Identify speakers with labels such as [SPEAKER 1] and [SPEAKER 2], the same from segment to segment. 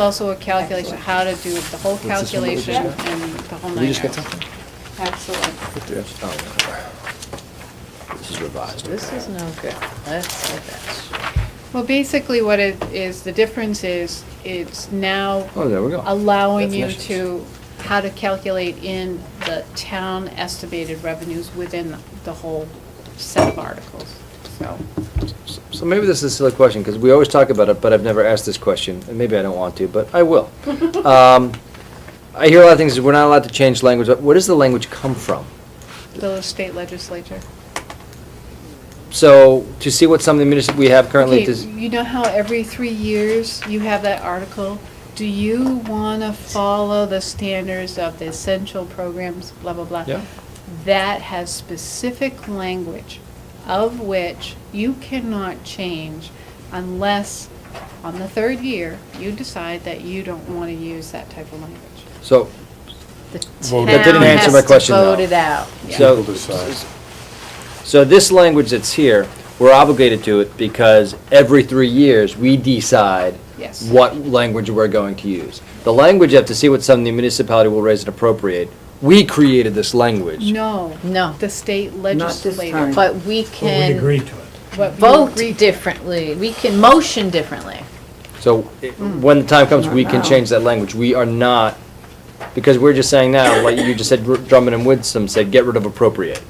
[SPEAKER 1] Also a calculation, how to do the whole
[SPEAKER 2] this one that we just
[SPEAKER 1] calculation
[SPEAKER 2] got?
[SPEAKER 1] and the whole
[SPEAKER 2] Did we
[SPEAKER 1] nine
[SPEAKER 2] just get
[SPEAKER 1] yards.
[SPEAKER 2] something?
[SPEAKER 1] Absolutely.
[SPEAKER 2] Oh. This is revised.
[SPEAKER 3] This is no good. Let's look at
[SPEAKER 1] Well, basically what it is, the difference is, it's now
[SPEAKER 2] Oh, there we go.
[SPEAKER 1] allowing you
[SPEAKER 2] Definitions.
[SPEAKER 1] to, how to calculate in the town estimated revenues within the whole set of articles, so.
[SPEAKER 2] So maybe this is a silly question, because we always talk about it, but I've never asked this question, and maybe I don't want to, but I will. Um, I hear a lot of things, we're not allowed to change language, but where does the language come from?
[SPEAKER 1] The state legislature.
[SPEAKER 2] So, to see what some of the municipalities we have currently,
[SPEAKER 1] Okay,
[SPEAKER 2] does,
[SPEAKER 1] you know how every three years you have that article? Do you want to follow the standards of the essential programs, blah, blah, blah?
[SPEAKER 2] Yeah.
[SPEAKER 1] That has specific language of which you cannot change unless on the third year you decide that you don't want to use that type of language.
[SPEAKER 2] so,
[SPEAKER 3] this. The
[SPEAKER 4] Vote it.
[SPEAKER 3] town
[SPEAKER 4] That didn't answer
[SPEAKER 3] has
[SPEAKER 2] my
[SPEAKER 3] to
[SPEAKER 2] question, though.
[SPEAKER 3] vote it out.
[SPEAKER 1] Yeah.
[SPEAKER 2] so.
[SPEAKER 4] People decide.
[SPEAKER 2] So this language that's here, we're obligated to it because every three years, we decide
[SPEAKER 1] Yes.
[SPEAKER 2] what language we're going to use. The language, you have to see what some municipality will raise and appropriate. We created this language.
[SPEAKER 1] No.
[SPEAKER 3] No.
[SPEAKER 1] The state
[SPEAKER 5] this
[SPEAKER 1] legislature.
[SPEAKER 5] time.
[SPEAKER 3] But we
[SPEAKER 4] Well, we
[SPEAKER 3] can
[SPEAKER 4] agreed to it.
[SPEAKER 1] What you
[SPEAKER 3] vote
[SPEAKER 1] agreed to.
[SPEAKER 3] differently. We can motion differently.
[SPEAKER 2] So it- when the time comes, we can change that language. We are not, because we're just saying now, like you just said, Drummond and Woodson said, get rid of appropriate.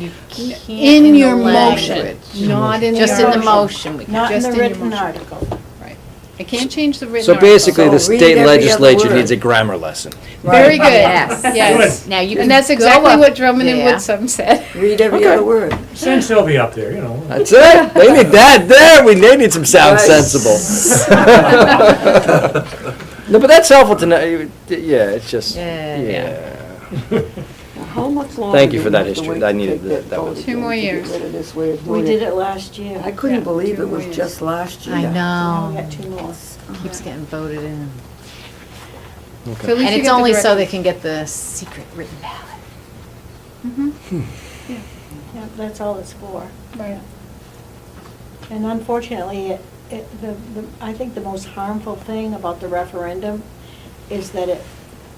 [SPEAKER 3] You can't
[SPEAKER 1] In
[SPEAKER 3] the
[SPEAKER 1] your motion,
[SPEAKER 3] language.
[SPEAKER 1] not in the
[SPEAKER 3] Just in the
[SPEAKER 1] motion.
[SPEAKER 3] motion. we can-
[SPEAKER 5] Not in
[SPEAKER 1] Just
[SPEAKER 5] the
[SPEAKER 1] in your
[SPEAKER 5] written
[SPEAKER 1] motion.
[SPEAKER 5] article.
[SPEAKER 1] Right. I can't change the written
[SPEAKER 2] So
[SPEAKER 1] article.
[SPEAKER 2] basically, the
[SPEAKER 5] So read
[SPEAKER 2] state
[SPEAKER 5] every other
[SPEAKER 2] legislature
[SPEAKER 5] word.
[SPEAKER 2] needs a grammar lesson.
[SPEAKER 1] Very good.
[SPEAKER 3] Yes.
[SPEAKER 1] Yes.
[SPEAKER 3] Now you can
[SPEAKER 1] And that's
[SPEAKER 3] go
[SPEAKER 1] exactly
[SPEAKER 3] up
[SPEAKER 1] what Drummond and
[SPEAKER 3] there.
[SPEAKER 1] Woodsum said.
[SPEAKER 5] Read every other word.
[SPEAKER 4] Send Sylvia up there, you know.
[SPEAKER 2] That's it. They need that. There, we they need some sound
[SPEAKER 5] Right.
[SPEAKER 2] sensible. no, but that's helpful to know. You- Yeah, it's just.
[SPEAKER 3] Yeah.
[SPEAKER 5] Now, How much longer?
[SPEAKER 2] Thank you
[SPEAKER 5] do
[SPEAKER 2] for
[SPEAKER 5] we
[SPEAKER 2] that
[SPEAKER 5] have to
[SPEAKER 2] history.
[SPEAKER 5] wait
[SPEAKER 2] I
[SPEAKER 5] to
[SPEAKER 2] needed
[SPEAKER 5] take
[SPEAKER 2] that- that
[SPEAKER 5] vote
[SPEAKER 2] was-
[SPEAKER 1] Two
[SPEAKER 5] again
[SPEAKER 1] more
[SPEAKER 5] to get
[SPEAKER 1] years.
[SPEAKER 5] rid of this weird
[SPEAKER 6] We
[SPEAKER 5] word?
[SPEAKER 6] did it last year.
[SPEAKER 5] I couldn't
[SPEAKER 1] Yeah,
[SPEAKER 5] believe
[SPEAKER 1] two
[SPEAKER 5] it
[SPEAKER 1] more
[SPEAKER 5] was
[SPEAKER 1] years.
[SPEAKER 5] just last year.
[SPEAKER 3] I
[SPEAKER 6] Now we
[SPEAKER 3] know.
[SPEAKER 6] got two more.
[SPEAKER 3] Keeps getting voted in.
[SPEAKER 1] So at least
[SPEAKER 3] And
[SPEAKER 1] you
[SPEAKER 3] it's
[SPEAKER 1] get the
[SPEAKER 3] only so
[SPEAKER 1] direct-
[SPEAKER 3] they can get the secret written ballot.
[SPEAKER 6] Yeah, That's all it's for.
[SPEAKER 1] Mm-hmm. Right.
[SPEAKER 6] And unfortunately, it, it, the, the- I think the most harmful thing about the referendum is that it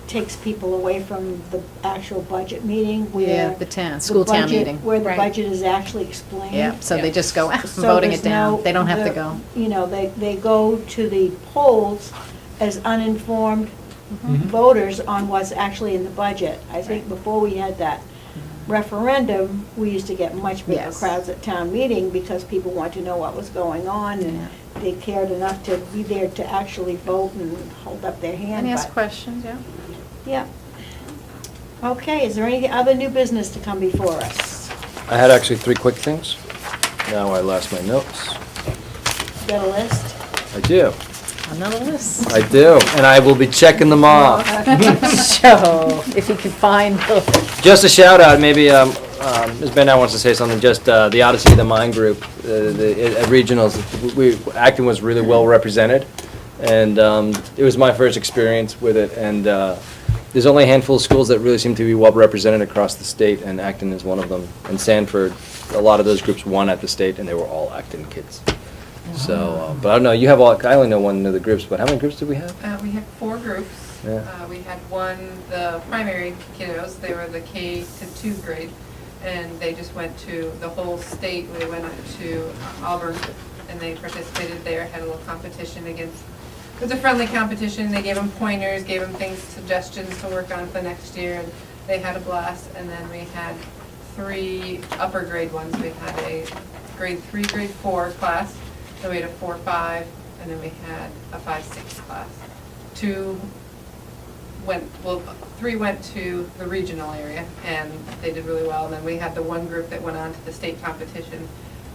[SPEAKER 6] takes people away from the actual budget meeting where.
[SPEAKER 3] Yeah, the town-
[SPEAKER 6] the
[SPEAKER 3] school town
[SPEAKER 6] budget-
[SPEAKER 3] meeting.
[SPEAKER 6] Where the
[SPEAKER 1] Right.
[SPEAKER 6] budget is actually explained.
[SPEAKER 3] Yeah, so
[SPEAKER 1] Yeah.
[SPEAKER 3] they just go, "Ah, I'm
[SPEAKER 6] So
[SPEAKER 3] voting
[SPEAKER 6] there's
[SPEAKER 3] it down.
[SPEAKER 6] no-
[SPEAKER 3] They don't have to
[SPEAKER 6] there-
[SPEAKER 3] go.
[SPEAKER 6] You know, they, they go to the polls as uninformed
[SPEAKER 3] Mm-hmm.
[SPEAKER 6] voters on what's actually in the budget. I think before we had that referendum, we used to get much bigger
[SPEAKER 3] Yes.
[SPEAKER 6] crowds at town meeting because people want to know what was going on and they cared enough to be there to actually vote and hold up their hand.
[SPEAKER 1] And ask
[SPEAKER 6] but-
[SPEAKER 1] questions, yeah.
[SPEAKER 6] Yeah. Okay, is there any other new business to come before us?
[SPEAKER 2] I had actually three quick things. Now I lost my notes.
[SPEAKER 6] Got a list?
[SPEAKER 2] I do.
[SPEAKER 3] Another list.
[SPEAKER 2] I do. And I will be checking them off.
[SPEAKER 3] So if you can find the.
[SPEAKER 2] Just a shout out, maybe um, um, Ms. Benow wants to say something, just uh, the Odyssey of the Mind Group, uh, the at regionals, we, Acton was really well represented, and um, it was my first experience with it, and uh, there's only a handful of schools that really seem to be well represented across the state, and Acton is one of them, and Sanford, a lot of those groups won at the state, and they were all Acton kids. So, uh, but I don't know, you have all, I only know one of the groups, but how many groups do we have?
[SPEAKER 7] Uh, we had four groups.
[SPEAKER 2] Yeah.
[SPEAKER 7] Uh, we had one, the primary kiddos, they were the K to two grade, and they just went to the whole state. They went up to Auburn, and they participated there, had a little competition against, it was a friendly competition. They gave them pointers, gave them things, suggestions to work on for the next year, and they had a blast. And then we had three upper grade ones. We had a grade three, grade four class, then we had a four, five, and then we had a five, six class. Two went, well, three went to the regional area, and they did really well. And then we had the one group that went on to the state competition.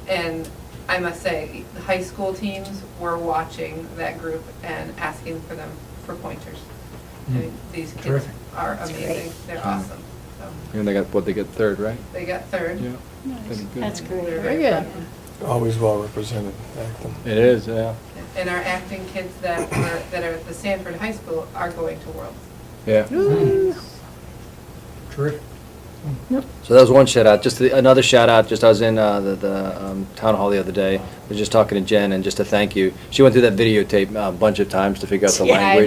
[SPEAKER 7] And I must say, the high school teams were watching that group and asking for them for pointers. I mean, These kids
[SPEAKER 4] Terrific.
[SPEAKER 7] are amazing, they're awesome. So
[SPEAKER 2] And they got, what, they got third, right?
[SPEAKER 7] They got third.
[SPEAKER 6] That's
[SPEAKER 7] They're
[SPEAKER 6] great.
[SPEAKER 7] very
[SPEAKER 3] Very good.
[SPEAKER 7] proud.
[SPEAKER 4] Always well represented, Acton.
[SPEAKER 2] It is, yeah.
[SPEAKER 7] And our acting kids that were, that are at the Sanford High School are going to Worlds.
[SPEAKER 2] Yeah.
[SPEAKER 4] Terrific.
[SPEAKER 2] So that was one shout out. Just the- another shout out, just I was in uh, the, the um, town hall the other day, I was just talking to Jen and just a thank you. She went through that videotape uh, a bunch of times to figure out the
[SPEAKER 3] Yeah, I
[SPEAKER 2] language.